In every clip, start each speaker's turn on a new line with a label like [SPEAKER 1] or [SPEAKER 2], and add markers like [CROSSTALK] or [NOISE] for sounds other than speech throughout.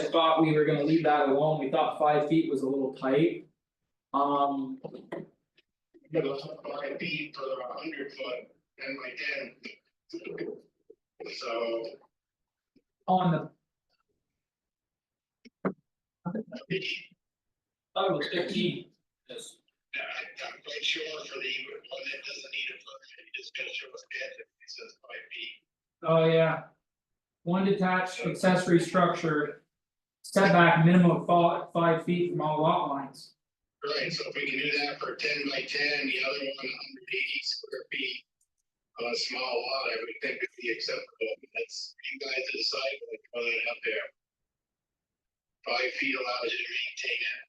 [SPEAKER 1] I thought we were gonna leave that alone, we thought five feet was a little tight. Um,
[SPEAKER 2] You know, five feet for a hundred foot and my ten. So
[SPEAKER 1] on the, oh, it was fifteen.
[SPEAKER 2] Yeah, I- uh, I'm quite sure for the one that doesn't need a foot, you just gotta show us ten, if it says five feet.
[SPEAKER 1] Oh, yeah. One detached accessory structure. Setback minimum of fi- five feet from all lot lines.
[SPEAKER 2] Right, so if we can do that for ten by ten, the other one hundred eighty square feet. On a small lot, I would think would be acceptable, that's you guys decide like whether it up there. Five feet allows you to maintain it.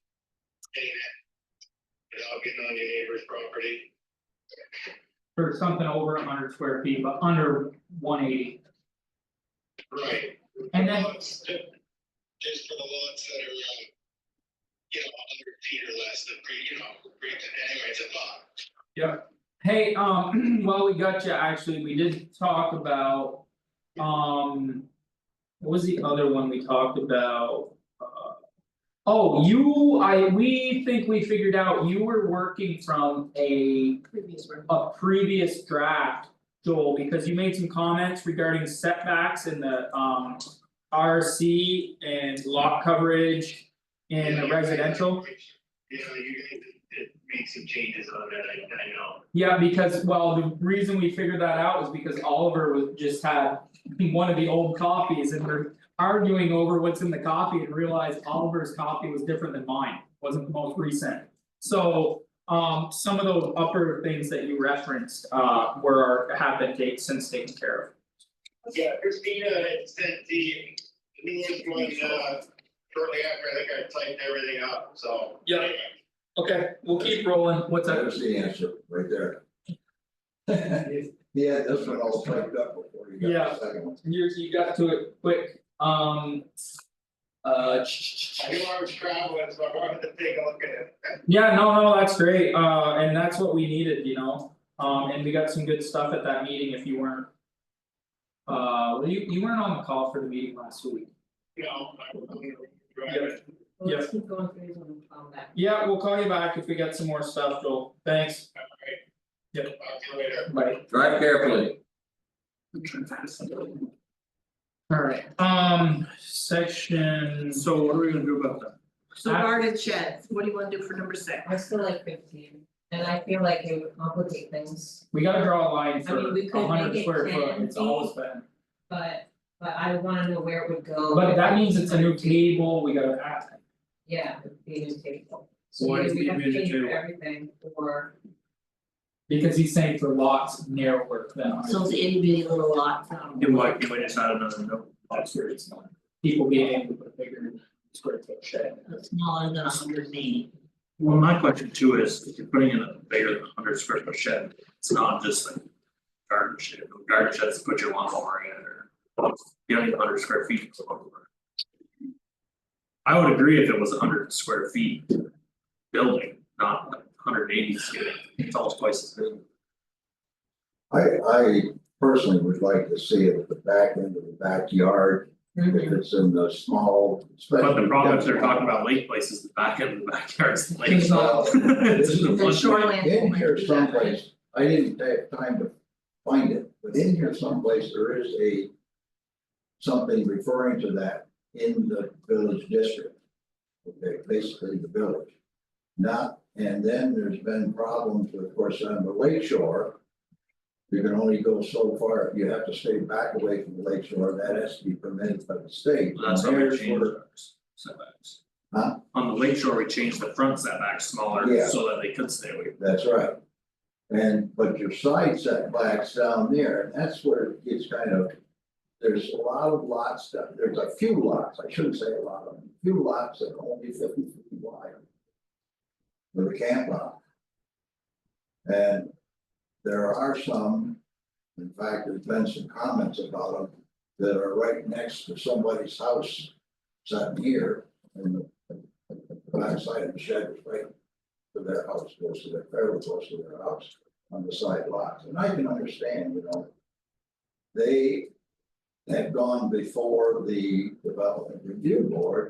[SPEAKER 2] Maintain it. Without getting on your neighbor's property,
[SPEAKER 1] Or something over hundred square feet, but under one eighty.
[SPEAKER 2] right?
[SPEAKER 1] And then-
[SPEAKER 2] Lots, Just for the lots that are, um. You know, hundred feet or less, the pre, you know, pre, anyway, it's a lot.
[SPEAKER 1] Hey, um, [CLEARS THROAT] while we got you, actually, we did talk about. Um. What was the other one we talked about? Uh, Oh, you, I, we think we figured out you were working from a.
[SPEAKER 3] previous room.
[SPEAKER 1] a previous draft, Joel, because you made some comments regarding setbacks in the um. RC and lot coverage in the residential,
[SPEAKER 2] Yeah, you guys did make some changes on that, I I know.
[SPEAKER 1] yeah, because, well, the reason we figured that out was because Oliver was just had. One of the old copies and we're arguing over what's in the copy and realized Oliver's copy was different than mine, wasn't the most recent. So, um, some of those upper things that you referenced, uh, were, have been taken, since taken care of.
[SPEAKER 2] Yeah, Christina had sent the newest one uh shortly after, I think I typed everything up, so.
[SPEAKER 1] Yeah. Okay, we'll keep rolling, what's
[SPEAKER 4] That
[SPEAKER 1] that?
[SPEAKER 4] was the answer, right there. Yeah, this one all typed up before you
[SPEAKER 1] Yeah.
[SPEAKER 4] got the second one.
[SPEAKER 1] You you got to it quick, um. Uh, ch- ch-
[SPEAKER 2] I
[SPEAKER 1] ch-
[SPEAKER 2] knew I was traveling, so I wanted to take a look at it.
[SPEAKER 1] yeah, no, no, that's great, uh, and that's what we needed, you know, um, and we got some good stuff at that meeting if you weren't. Uh, well, you you weren't on the call for the meeting last week.
[SPEAKER 2] You know, I was going to drive it.
[SPEAKER 3] Well, Let's keep going through these um, one and follow that.
[SPEAKER 1] Yeah, we'll call you back if we get some more stuff, Joel, thanks,
[SPEAKER 2] All right.
[SPEAKER 1] Yep.
[SPEAKER 2] Talk to you later.
[SPEAKER 1] bye.
[SPEAKER 4] Drive carefully.
[SPEAKER 1] Alright, um, section, so what are we gonna do about that?
[SPEAKER 5] So garden sheds, what do you wanna do for number six?
[SPEAKER 3] I still like fifteen, and I feel like it would complicate things,
[SPEAKER 1] We gotta draw a line for
[SPEAKER 3] mean, we could
[SPEAKER 1] a hundred
[SPEAKER 3] make it
[SPEAKER 1] square
[SPEAKER 3] 10
[SPEAKER 1] foot, it's always been.
[SPEAKER 3] but but I wanna know where it would go.
[SPEAKER 1] But that means it's a new table, we gotta add.
[SPEAKER 3] Yeah, it'd be a new table.
[SPEAKER 1] Why is it
[SPEAKER 3] So either we have to
[SPEAKER 1] a new
[SPEAKER 3] change
[SPEAKER 1] table?
[SPEAKER 3] everything or
[SPEAKER 1] Because he's saying for lots narrower than ours.
[SPEAKER 5] So it's itty bitty little lots, um,
[SPEAKER 6] It might, it might just add another note.
[SPEAKER 1] That's where it's not. People being able to put bigger square foot shed.
[SPEAKER 5] smaller than hundred and eighty.
[SPEAKER 6] Well, my question too is, if you're putting in a bigger than hundred square foot shed, it's not just like garden shed, garden sheds, put your lawnmower in or. You don't need hundred square feet for lawnmower. I would agree if it was hundred square feet building, not hundred eighty square, it's almost twice as big.
[SPEAKER 4] I, I personally would like to see it at the back end of the backyard, if it's in the small, especially.
[SPEAKER 6] But the problem if they're talking about lake places, the back end of the backyard is the lake.
[SPEAKER 4] It's not-
[SPEAKER 6] [LAUGHS] It's just a
[SPEAKER 5] The
[SPEAKER 6] flush.
[SPEAKER 5] shoreline
[SPEAKER 4] In
[SPEAKER 5] might
[SPEAKER 4] here
[SPEAKER 5] do that, right?
[SPEAKER 4] someplace, I didn't take time to find it, but in here someplace, there is a. Something referring to that in the village district. Okay, basically the village. Not, and then there's been problems, of course, on the lake shore. You can only go so far, you have to stay back away from the lake shore, that has to be permitted by the state.
[SPEAKER 6] Well, That's how we
[SPEAKER 4] There's
[SPEAKER 6] changed
[SPEAKER 4] where-
[SPEAKER 6] ours, setbacks.
[SPEAKER 4] Huh?
[SPEAKER 6] On the lake shore, we changed the front setback smaller
[SPEAKER 4] Yeah.
[SPEAKER 6] so that they could stay away.
[SPEAKER 4] That's right. And, but your side setbacks down there, and that's where it gets kind of, there's a lot of lots that, there's a few lots, I shouldn't say a lot of them, few lots that are only fifty feet wide. With a camp lot. And there are some, in fact, there's been some comments about them that are right next to somebody's house. Sitting here and the the backside of the shed is right to their house, goes to their, fairly close to their house on the side lots, and I can understand, you know. They, have gone before the development review board